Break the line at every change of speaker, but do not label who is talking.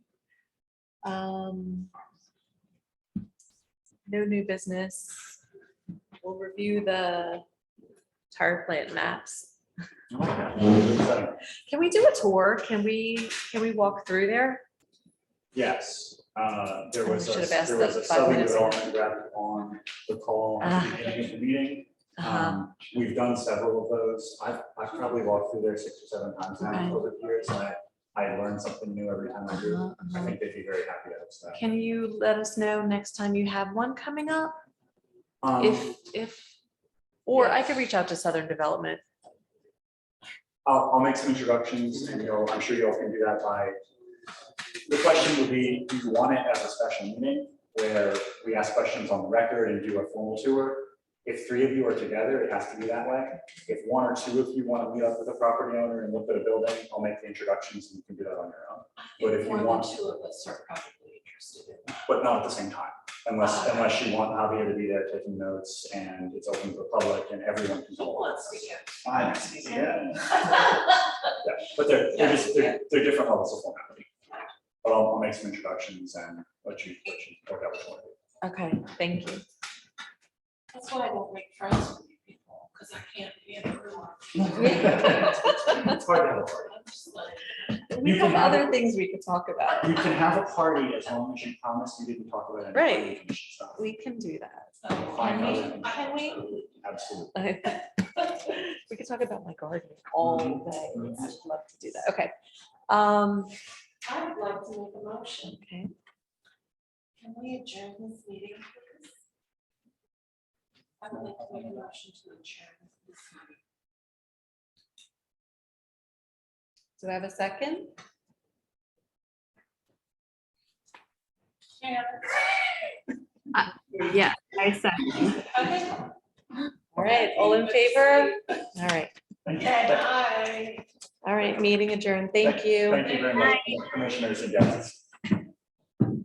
Um, No new business. We'll review the tar plant maps. Can we do a tour? Can we, can we walk through there?
Yes, uh, there was,
Should
a-
have asked
there was
that
a
five
southern
minutes.
development rep on the call at
Ah.
the beginning of the meeting.
Uh-huh.
Um, We've done several of those. I've, I've probably walked through there six or seven times
Okay.
now over the years. and I, I learn something new every time Um, I do.
Uh-huh,
I
uh-huh.
think they'd be very happy to host that.
Can you let us know next time you have one coming up?
Um,
If, if, or I could reach out to Southern Development.
I'll, I'll make some introductions and you'll, I'm sure you all can do that by. The question would be, do you want it as a special meeting where we ask questions on the record and do a formal tour? If three of you are together, it has to be that way. If one or two of you want to meet up with a property owner and look at a building, I'll make the introductions and you can do that on your own. But if you
More than
want-
Two of us are probably interested in that.
But not at the same time, unless, unless you want Javier to be there taking notes and it's open to the public and everyone can. follow.
Once we get.
Fine, yeah. Yeah, but they're, they're
Yeah,
just, they're, they're different levels of formality. But I'll, I'll make some introductions and let you, let you work out which one.
Okay, thank you.
That's why I don't make friends with you people, because I can't be in the room.
It's hard to have a party.
I'm just like,
We
You can
have
have
other things we could talk about.
You can have a party as long as you promise you didn't talk about any. planning
Right.
commission stuff.
We can do that.
so
Fine,
Can we,
I'll-
can we?
Absolutely.
We could talk about my garden all day. I'd love to do that. Okay. Um,
I would like to make a motion.
okay,
Can we adjourn this meeting? please? I would like to make a motion to adjourn this meeting.
do I have a second?
Karen?
Uh, Yeah, I said,
Okay.
All right, all in favor? All right,
Thank you.
And
Thank-
I.
all right, meeting adjourned. Thank you.
Thank you very much, commissioners and guests.